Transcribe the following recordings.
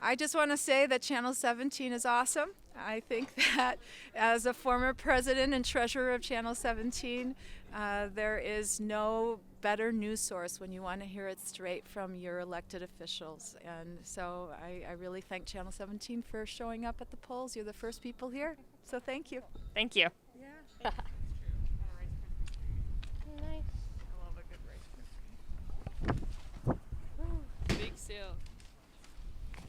I just want to say that Channel 17 is awesome. I think that as a former president and treasurer of Channel 17, uh, there is no better news source when you want to hear it straight from your elected officials. And so I, I really thank Channel 17 for showing up at the polls. You're the first people here, so thank you. Thank you. Big sale.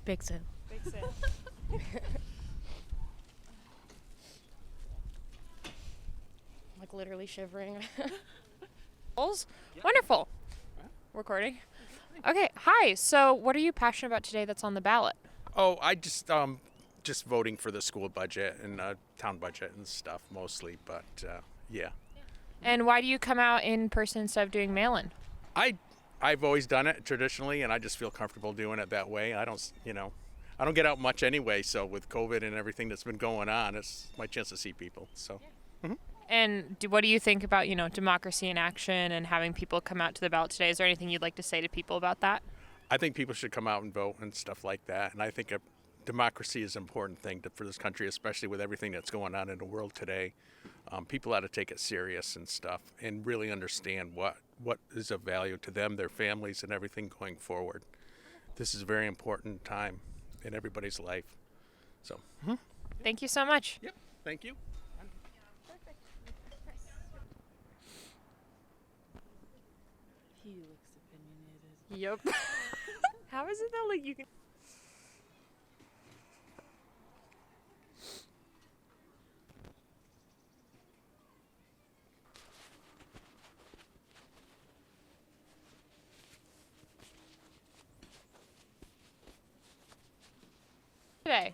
Big sale. Big sale. Like literally shivering. Polls? Wonderful. Recording. Okay. Hi. So, what are you passionate about today that's on the ballot? Oh, I just um, just voting for the school budget and uh, town budget and stuff mostly, but uh, yeah, And why do you come out in person instead of doing mail in? I I've always done it traditionally, and I just feel comfortable doing it that way. I don't, s- you know, I don't get out much anyway. So with COVID and everything that's been going on, it's my chance to see people. So And do, what do you think about, you know, democracy in action and having people come out to the ballot today? Is there anything you'd like to say to people about that? I think people should come out and vote and stuff like that. And I think a, democracy is an important thing to, for this country, especially with everything that's going on in the world today. Um, people ought to take it serious and stuff, and really understand what what is of value to them, their families, and everything going forward. This is a very important time in everybody's life. So, Thank you so much. yep, thank you. Yep. How is it that like you can today?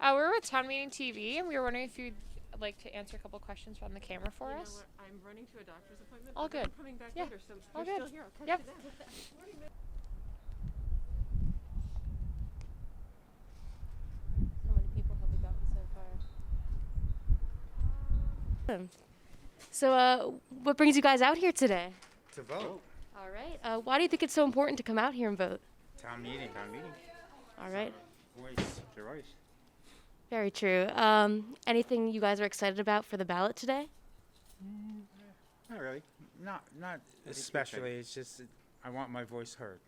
Uh, we're with Town Meeting TV, and we were wondering if you'd like to answer a couple questions from the camera for You know us. what? I'm running to a doctor's appointment. All but I'm good. coming back Yeah. later, so All you're good. still here. I'll catch Yep. you then. How many people have we gotten so far? Um, So, uh, what brings you guys out here today? To vote. All right. Uh, why do you think it's so important to come out here and vote? Town meeting. Town meeting. All right. Voice. Your voice. Very true. Um, anything you guys are excited about for the ballot today? Not really. Not not especially. It's just uh, I want my voice heard.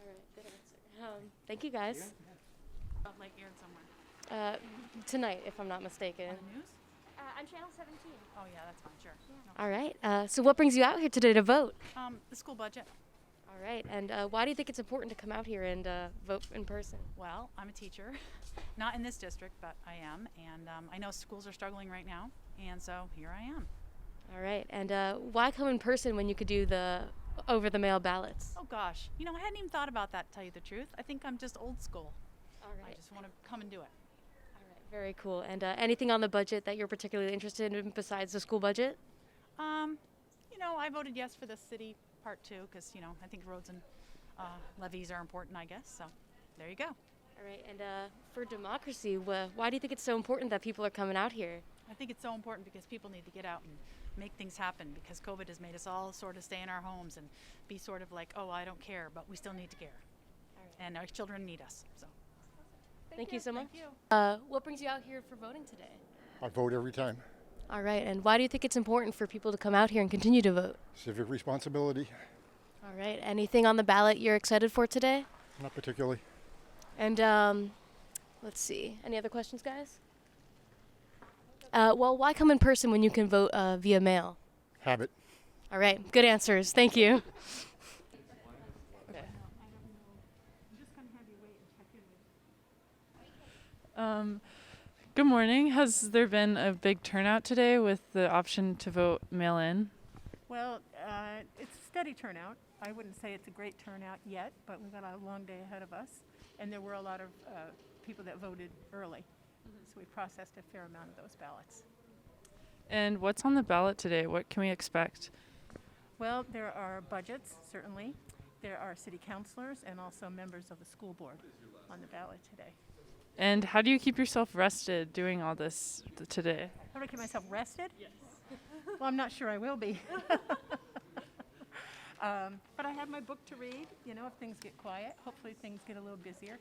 All right. Good answer. Um, thank you guys. About Lake Erin somewhere. Uh, tonight, if I'm not mistaken. News? Uh, on channel 17. Oh yeah, that's fine. Sure. All right. Uh, so, what brings you out here today to vote? Um, the school budget. All right. And uh, why do you think it's important to come out here and uh, vote in person? Well, I'm a teacher, not in this district, but I am, and um, I know schools are struggling right now, and so here I am. All right. And uh, why come in person when you could do the over the mail ballots? Oh gosh, you know, I hadn't even thought about that. To tell you the truth, I think I'm just old school. All I right. just want to come and do it. All right. Very cool. And uh, anything on the budget that you're particularly interested in besides the school budget? Um, you know, I voted yes for the city part two because you know I think roads and uh, levees are important. I guess so. There you go. All right. And uh, for democracy, wh- why do you think it's so important that people are coming out here? I think it's so important because people need to get out and make things happen because COVID has made us all sort of stay in our homes and be sort of like, oh, I don't care, but we still need to care, and our children need us. So. Thank, you. so much. Uh, what brings you out here for voting today? I vote every time. All right. And why do you think it's important for people to come out here and continue to vote? Civic responsibility, All right. Anything on the ballot you're excited for today? not particularly. And um, let's see. Any other questions, guys? Uh, well, why come in person when you can vote uh, via mail? Habit. All right. Good answers. Thank you. Um, good morning. Has there been a big turnout today with the option to vote mail in? Well, uh, it's a steady turnout. I wouldn't say it's a great turnout yet, but we've got a long day ahead of us. And there were a lot of uh, people that voted early. So we processed a fair amount of those ballots. And what's on the ballot today? What can we expect? Well, there are budgets, certainly. There are city councilors and also members of the school board on the ballot today. And how do you keep yourself rested doing all this th- today? How do I keep myself rested? Yes. well, I'm not sure I will be. um, but I have my book to read, you know, if things get quiet. Hopefully, things get a little busier.